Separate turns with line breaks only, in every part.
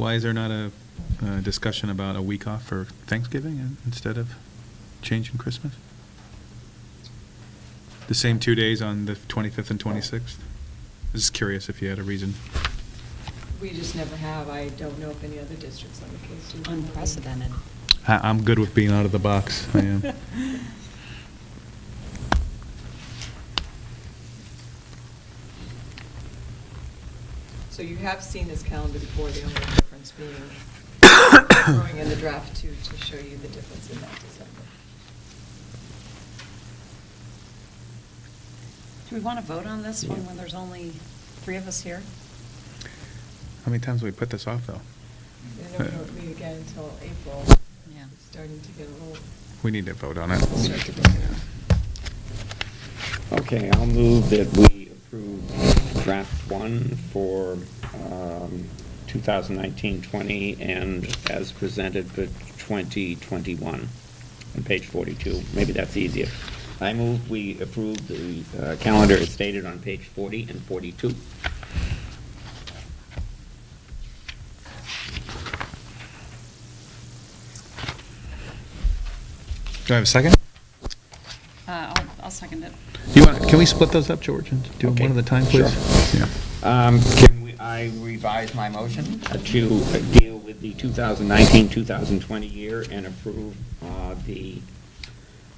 Why is there not a uh, discussion about a week off for Thanksgiving instead of changing Christmas? The same two days on the 25th and 26th? Just curious if you had a reason.
We just never have. I don't know if any other districts on the case do. that.
Unprecedented.
I- I'm good with being out of the box, I am.
So you have seen this calendar before, the only difference being throwing in the draft two to show you the difference in that December.
Do we want to vote on this one when there's only three of us here?
How many times have we put this off, though?
I don't know, if we meet again until April,
Yeah.
It's starting to get a little,
We need to vote on it.
start to break down.
Okay, I'll move that we approve draft one for um, 2019-20 and as presented for 2021 on page 42. Maybe that's easier. I move we approve the uh, calendar as stated on page 40 and 42.
Do I have a second?
Uh, I'll, I'll second it.
You want, can we split those up, George, and do them
Okay,
one at a time, please? Yeah.
Um, Can we- I revise my motion? uh, To uh, deal with the 2019-2020 year and approve uh, the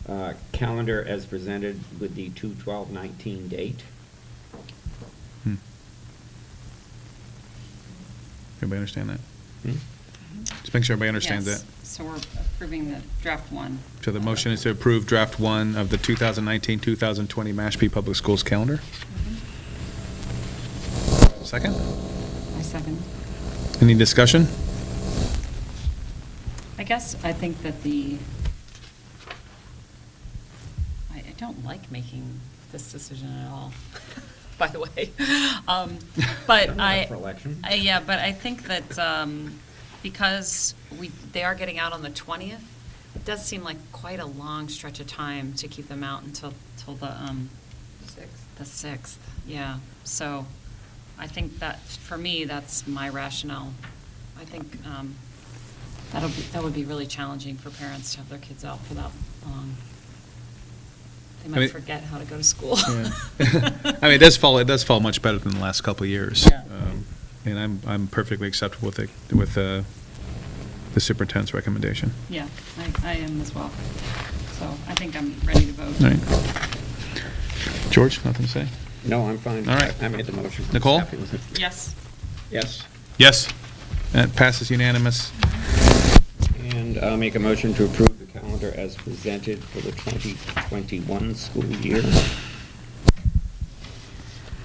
uh, calendar as presented with the 2/12/19 date.
Hmm. Everybody understand that?
Hmm?
Just make sure everybody understands
Yes.
that.
So we're approving the draft one.
So the motion is to approve draft one of the 2019-2020 Mashpee Public Schools calendar.
Mhm.
Second?
I second.
Any discussion?
I guess I think that the, I, I don't like making this decision at all, by the way. Um, But
Coming up
I.
for election.
I- Yeah, but I think that um, because we, they are getting out on the 20th, it does seem like quite a long stretch of time to keep them out until, till the, um,
Six.
the 6th, yeah. So I think that, for me, that's my rationale. I think um, that'll, be- that would be really challenging for parents to have their kids out for that long. They
I mean-
might forget how to go to school.
I mean, it does fall, it does fall much better than the last couple of years.
Yeah.
Um, And I'm, I'm perfectly acceptable with it, with uh, the superintendent's recommendation.
Yeah, I, I am as well. So I think I'm ready to vote.
All right. George, nothing to say?
No, I'm fine.
All right.
I made the motion.
Nicole?
Happy with it.
Yes.
Yes.
Yes. That passes unanimous.
And I'll make a motion to approve the calendar as presented for the 2021 school year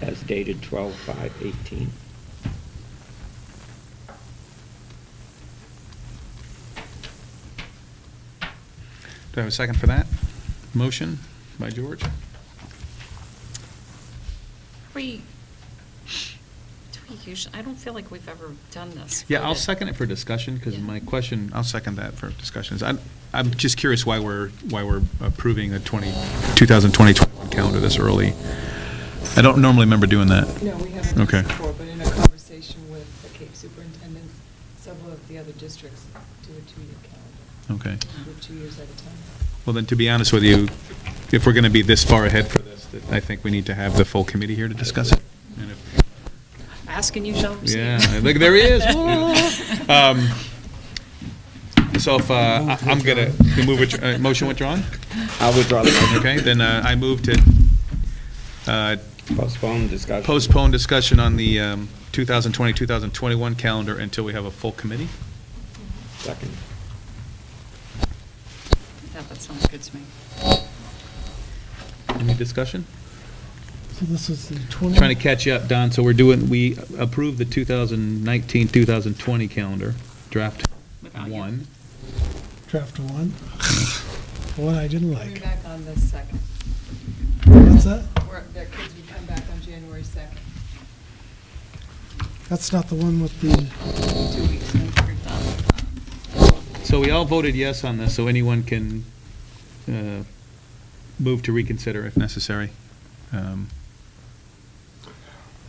as dated 12/5/18.
Do I have a second for that? Motion by George?
We, do we usually, I don't feel like we've ever done this.
Yeah, I'll second it for discussion, because
Yeah.
my question, I'll second that for discussions. I'm, I'm just curious why we're, why we're approving the 20, 2020 calendar this early. I don't normally remember doing that.
No, we haven't done
Okay.
this before, but in a conversation with the Cape Superintendent, several of the other districts do a two-year calendar,
Okay.
with two years at a time.
Well, then, to be honest with you, if we're going to be this far ahead for this, that I think we need to have the full committee here to discuss it. And if
Asking you shall receive.
Yeah, look, there he is. Whoa. Um, So if, uh, I- I'm gonna, we move, withdraw- uh, motion withdrawn?
I'll withdraw the motion.
Okay, then uh, I move to uh,
Postpone discussion.
postpone discussion on the um, 2020, 2021 calendar until we have a full committee.
Second.
That, that sounds good to me.
Any discussion?
So this is the 20?
Trying to catch you up, Don, so we're doing, we approved the 2019, 2020 calendar, draft
Without you.
one.
Draft one? The One I didn't
Coming
like.
back on the second.
What's that?
Where their kids would come back on January second,
That's not the one with the,
Two weeks, we approved that.
So we all voted yes on this, so anyone can uh, move to reconsider if necessary. Um,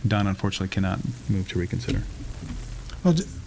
Don unfortunately cannot move to reconsider.
well, oh, d-